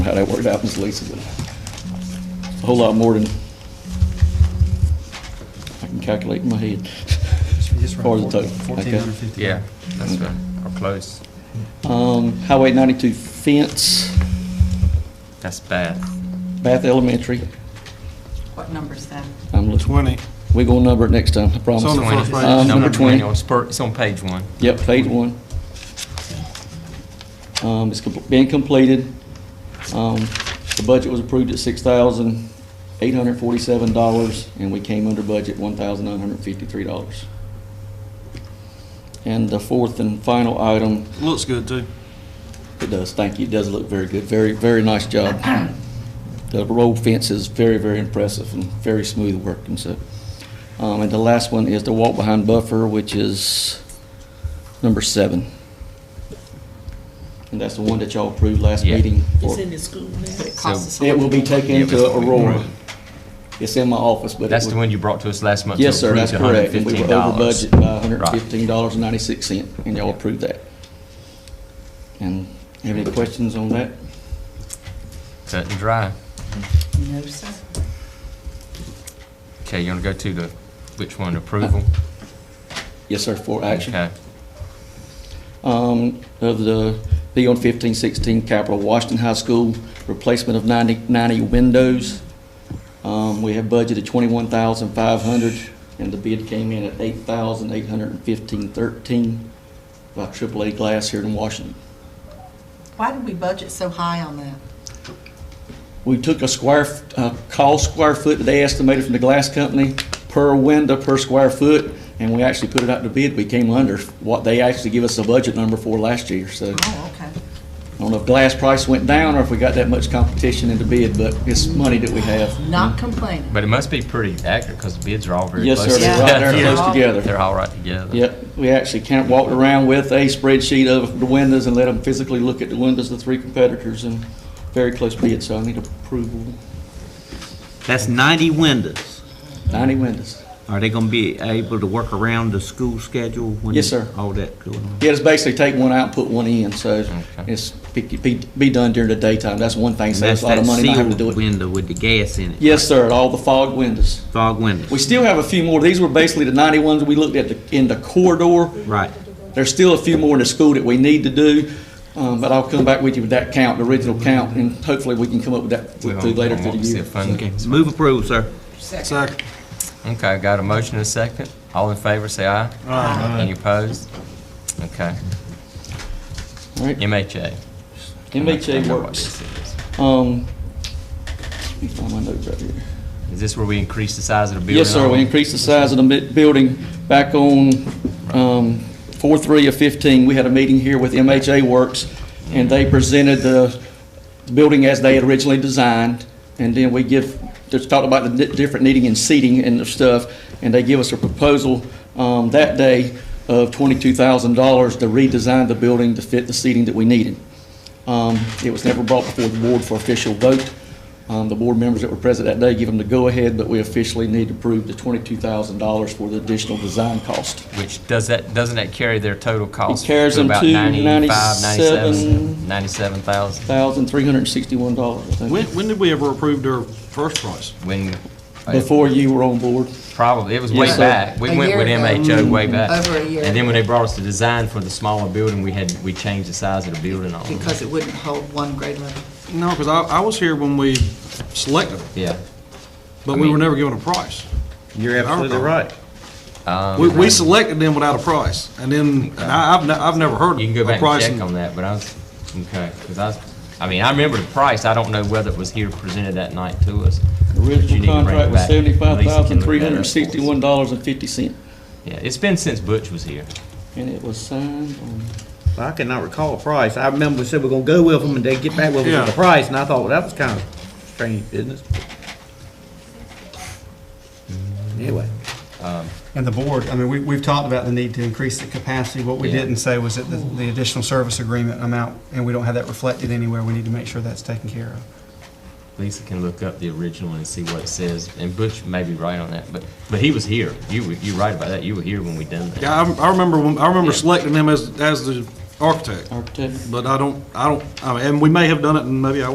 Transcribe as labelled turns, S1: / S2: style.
S1: how that worked out, Ms. Lisa, but a whole lot more than I can calculate in my head.
S2: Just
S1: Or the
S2: around
S1: total, okay.
S2: fourteen hundred fifty.
S3: Yeah, that's fair, or close.
S1: Um, Highway ninety-two fence,
S3: That's bad.
S1: Bath Elementary,
S4: What number's that?
S1: I'm looking,
S5: Twenty.
S1: we gonna number it next time, I promise.
S5: on the
S3: Twenty.
S5: first page.
S1: Um,
S3: Number
S1: number 20.
S3: twenty on spur, it's on page one.
S1: Yep, phase one. Um, it's com- been completed. Um, the budget was approved at six thousand eight hundred forty-seven dollars, and we came under budget one thousand nine hundred fifty-three dollars. And the fourth and final item,
S5: Looks good too.
S1: it does, thank you, it does look very good, very, very nice job. The road fence is very, very impressive and very smooth working, so. Um, and the last one is the walk-behind buffer, which is number seven. And that's the one that y'all approved last
S3: Yeah.
S1: meeting. for-
S6: It's in the school now.
S4: It costs us a
S1: It
S4: lot.
S1: will be taken to Aurora. It's in my office, but. it
S3: That's the
S1: would-
S3: one you brought to us last month. to
S1: Yes, sir,
S3: approve
S1: that's
S3: the
S1: correct. And we were over
S3: $115.
S1: budget by hundred
S3: Right.
S1: and fifteen dollars and ninety-six cent, and y'all approved that. And have any questions on that?
S3: Cut and dry.
S4: No, sir.
S3: Okay, you wanna go to the, which one, approval?
S1: Yes, sir, for Uh, action.
S3: Okay,
S1: Um, of the B on fifteen sixteen Capital Washington High School, replacement of 90 90 windows. Um, we have budgeted twenty-one thousand five hundred, and the bid came in at eight thousand eight hundred and fifteen thirteen by AAA Glass here in Washington.
S4: Why did we budget so high on that?
S1: We took a square, f- uh, cost square foot that they estimated from the glass company per window, per square foot, and we actually put it out to bid. We came under what they actually give us a budget number for last year, so.
S4: Oh, okay.
S1: I don't know if glass price went down or if we got that much competition in the bid, but it's money that we have.
S4: Not complaining.
S3: but it must be pretty accurate, cause the bids are all very
S1: Yes,
S3: close.
S1: sir, they're
S3: together.
S1: right there
S4: Yeah.
S1: close
S3: They're
S1: together.
S3: all right together.
S1: Yep, we actually can't walk around with a spreadsheet of the windows and let them physically look at the windows of the three competitors and very close bid, so I need approval.
S7: That's 90 windows.
S1: Ninety windows.
S7: Are they going to be able to work around the school schedule? when
S1: Yes, sir.
S7: All that going on?
S1: Yeah, it's basically take one out, and put one in, so
S3: Okay.
S1: it's, be, be be done during the daytime. That's one thing, saves a lot of money not having to do
S7: That's that sealed
S1: it.
S7: window with the gas in it.
S1: Yes, sir, all the fog windows.
S7: Fog
S1: We
S7: windows,
S1: still have a few more. These were basically the ninety ones we looked at the- in the corridor.
S7: right.
S1: There's still a few more in the school that we need to do, um, but I'll come back with you with that count, the original count, and hopefully we can come up with that
S3: We
S1: through
S3: don't-
S1: later
S3: don't
S1: through
S3: want to
S1: the
S3: see
S1: year.
S3: a fund-
S7: Okay, move approved, sir.
S5: Second.
S3: Okay, got a motion and a second. All in favor, say aye. Any opposed? Okay,
S1: All right,
S3: MHA.
S1: MHA
S3: I know what
S1: works.
S3: this is.
S1: Um, let me find my notes right here.
S3: Is this where we increase the size of the building?
S1: Yes, sir,
S3: all?
S1: we increased the size of the mi- building back on, um, four, three of fifteen. We had a meeting here with MHA Works, and they presented the building as they had originally designed. And then we give, just talked about the di- different needing and seating and the stuff, and they give us a proposal, um, that day of twenty-two thousand dollars to redesign the building to fit the seating that we needed. Um, It was never brought before the board for official vote. Um, The board members that were present that day give them the go-ahead, but we officially need to approve the $22,000 for the additional design cost.
S3: Which, does that, doesn't that carry their total cost?
S1: carries them
S3: about
S1: to
S3: 95, 97,
S1: 97.
S3: 97,000?
S1: $1,361, I think,
S5: When, when did we ever approve their first price?
S3: When, uh,
S1: before you were on board.
S3: probably, it was way
S1: Yes, sir. Mm-hmm.
S3: back. We
S4: A
S3: went
S4: year
S3: with
S4: ago.
S3: MHO way back.
S4: Over a year
S3: And then
S4: ago.
S3: when they brought us the design for the smaller building, we had, we changed the size of the building on it.
S4: Because it wouldn't hold one grade level.
S5: No, because I, I was here when we selected them,
S3: Yeah.
S5: but we were never given a price.
S7: You're
S5: absolutely
S7: right.
S3: um,
S5: We, we selected them without a price, and then, and I, I've, ne- I've never heard
S3: You can go
S5: a
S3: back and
S5: price.
S3: check on that, but I was, okay, because I was, I mean, I remember the price. I don't know whether it was here presented that night to us.
S1: The
S3: But you need
S1: original
S3: to bring it
S1: contract was
S3: back. Lisa can look that up for us.
S1: $75,361.50,
S3: Yeah, it's been since Butch was here.
S1: and it was signed on,
S7: I cannot recall a price. I remember we said we're going to go with them and they get back with
S5: us with a Yeah.
S7: price. And I thought, well, that was kind of strange business. Anyway.
S8: And the board, I mean, we, we've talked about the need to increase the capacity. What we
S3: Yeah.
S8: didn't say was that the, the additional service agreement amount, and we don't have that reflected anywhere. We need to make sure that's taken care of.
S3: Lisa can look up the original and see what it says, and Butch may be right on that, but, but he was here. You were, you're right about that. You were here when we done that.
S5: Yeah, I, I remember, when- I remember
S3: Yeah.
S5: selecting them as, as the architect,
S1: architect.
S5: but I don't, I don't, I mean, and we may have done it, and maybe I